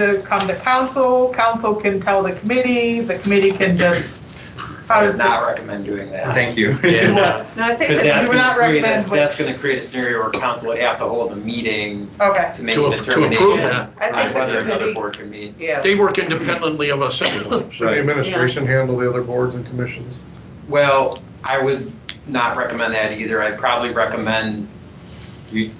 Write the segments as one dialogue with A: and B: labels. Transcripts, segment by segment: A: to come to council, council can tell the committee, the committee can just, how
B: I
A: does
B: would not
A: that?
B: recommend doing that.
C: Thank you.
A: Do
B: Yeah.
A: what? No, I think
B: Because
A: that you
B: that's
A: would
B: gonna
A: not
B: create,
A: recommend,
B: that's,
A: what-
B: that's gonna create a scenario where council would have to hold a meeting
A: okay.
B: to make
D: To
B: a
D: a- to approve
B: determination
D: that.
A: I
B: on
A: think
B: whether
A: the
B: another
A: committee,
B: board can meet.
A: yeah.
D: They work independently of us anyway.
E: Should the administration handle the other boards and commissions?
B: Well, I would not recommend that either. I'd probably recommend
C: You-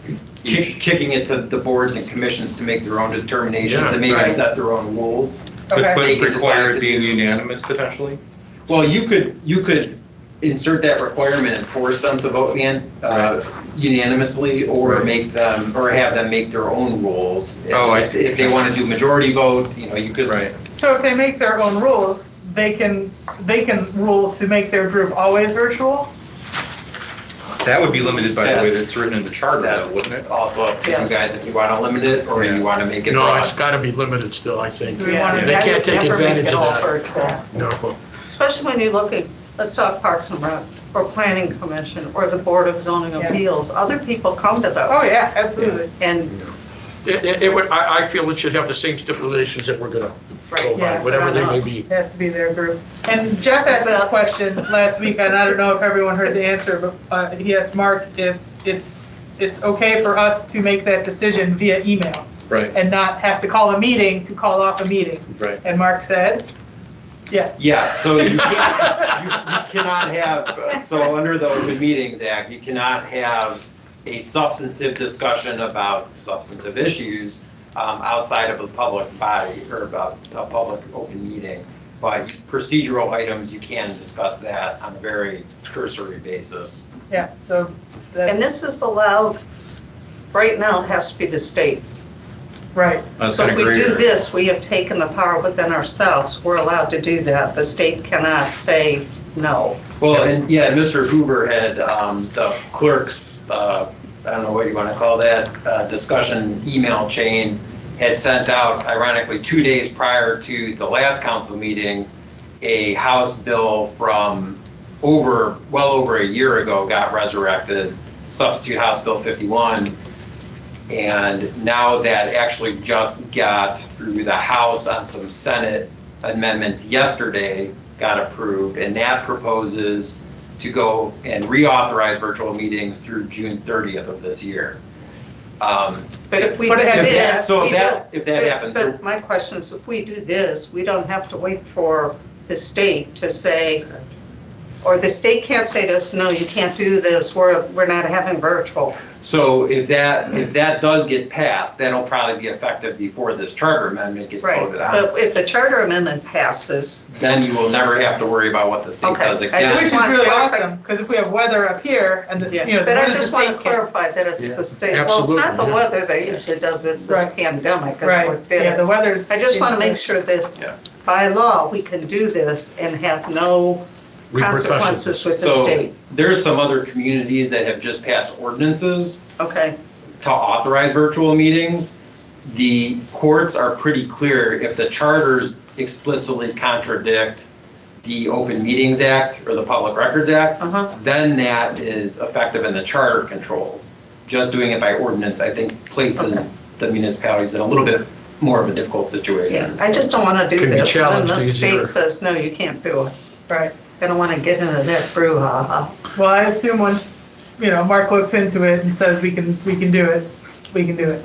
B: kick- kicking it to the boards and commissions to make their own determinations
D: Yeah,
B: and maybe
A: right.
B: set their own rules.
C: But
A: Okay,
C: but
B: They could
C: require
B: decide to
C: it being
B: do-
C: unanimous potentially?
B: Well, you could, you could insert that requirement and force them to vote man- uh, unanimously or
C: Right.
B: make them, or have them make their own rules.
C: Oh, I see.
B: If they want to do majority vote, you know, you could.
A: so if they make their own rules, they can, they can rule to make their group always virtual?
C: That would be limited by the way
B: Yes.
C: that it's written in the charter, though,
B: That's
C: wouldn't it?
B: also up to you
A: Yes.
B: guys if you want to limit it or
C: Yeah.
B: you want to make it
D: No, it's
B: broad.
D: got to be limited still, I think.
A: Do we want to?
D: They can't take advantage of that.
F: that.
D: No.
F: Especially when you look at, let's talk Parks and Rec, or Planning Commission, or the Board of Zoning
A: Yeah.
F: Appeals. Other people come to those.
A: Oh, yeah, absolutely.
F: And,
D: It, it- it would, I, I feel it should have the same stipulations that we're going to go by,
A: Yeah,
D: whatever they may
F: us.
D: be.
A: It has to be their group. And Jeff asked this question last week, and I don't know if everyone heard the answer, but uh, he asked Mark if it's, it's okay for us to make that decision via email
C: Right,
A: and not have to call a meeting to call off a meeting.
C: right.
A: And Mark said,
B: Yeah, so you can't- you you cannot have, so under the Open Meetings Act, you cannot have a substantive discussion about substantive issues um, outside of a public body or about a public open meeting. But procedural items, you can discuss that on a very cursory basis.
A: yeah, so
F: and
A: that's
F: this is allowed, right now, it has to be the state.
A: right.
C: I was
F: So
C: gonna
F: if we
C: agree
F: do
C: with-
F: this, we have taken the power within ourselves. We're allowed to do that. The state cannot say no.
B: Well, and yeah, Mr. Huber had um, the clerk's, uh, I don't know what you want to call that, uh, discussion email chain had sent out ironically two days prior to the last council meeting, a House bill from over, well over a year ago got resurrected, substitute House Bill 51. And now that actually just got through the House on some Senate amendments yesterday got approved, and that proposes to go and reauthorize virtual meetings through June 30th of this year. Um,
F: But if we do
A: But it has-
B: yeah,
F: this,
B: So
F: we
B: if
F: don't
B: that, if that
F: But-
B: happens,
F: But my question is, if we do this, we don't have to wait for the state to say, or the state can't say to us, no, you can't do this, we're, we're not having virtual.
B: so if that, if that does get passed, that'll probably be effective before this charter amendment gets
F: Right,
B: voted on.
F: but if the charter amendment passes,
B: Then you will never have to worry about what the state
F: Okay,
B: does
F: I
B: again.
A: Which
F: just
A: is
F: want
A: really
F: clarif-
A: awesome, because if we have weather up here and the, you know,
F: but
A: what
F: I
A: does the
F: just want to
A: state care?
F: clarify that it's the state,
D: Yeah,
F: well, it's not the
D: absolutely, yeah.
F: weather that usually does it, it's this
A: Right.
F: pandemic, that's
A: Right,
F: what did
A: yeah,
F: it.
A: the weather's.
F: I just want to make sure
B: Yeah.
F: that by law, we can do this and have no
D: Repercussions.
F: consequences with the
B: So-
F: state,
B: There's some other communities that have just passed ordinances
F: okay?
B: to authorize virtual meetings, the courts are pretty clear if the charters explicitly contradict the Open Meetings Act or the Public Records Act,
F: Uh-huh.
B: then that is effective and the charter controls. Just doing it by ordinance, I think, places the municipalities in a little bit more of a difficult
F: Yeah,
B: situation.
F: I just don't want to do
D: Can be
F: this, and then the
D: challenged easier.
F: state says, no, you can't do it.
A: Right.
F: I don't want to get into that brouhaha.
A: Well, I assume once, you know, Mark looks into it and says we can, we can do it, we can do it.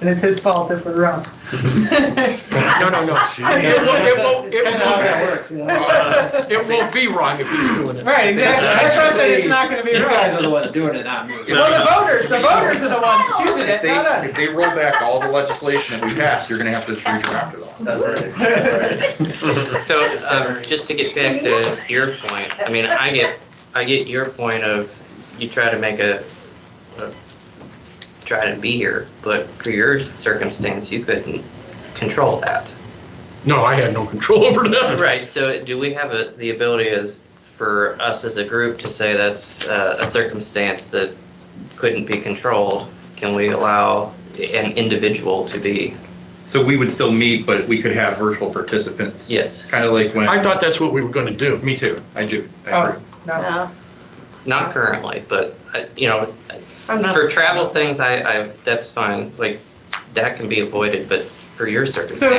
A: And it's his fault if we're wrong.
D: No, no, no. It won't, it won't, it won't, it won't be wrong if he's doing it.
A: Right, exactly. I trust that it's not gonna be
B: You guys are
A: right.
B: the ones doing it, not me.
A: Well, the voters, the voters are the ones choosing
C: If
A: it,
C: they,
A: not
C: if
A: us.
C: they roll back all the legislation that we passed, you're gonna have to redraft it all.
B: That's right.
G: So, um, just to get back to your point, I mean, I get, I get your point of, you try to make a, a- try to be here, but for your circumstance, you couldn't control that.
D: No, I had no control over that.
G: Right, so do we have a- the ability as, for us as a group to say that's uh, a circumstance that couldn't be controlled? Can we allow an individual to be,
C: So we would still meet, but we could have virtual participants.
G: yes,
C: Kind of like when,
D: I thought that's what we were going to do.
C: me too, I do, I
A: Oh.
C: agree.
A: No,
F: No,
G: not currently, but, uh, you know,
F: I'm not,
G: For travel things, I, I, that's fine, like, that can be avoided, but for your circumstance.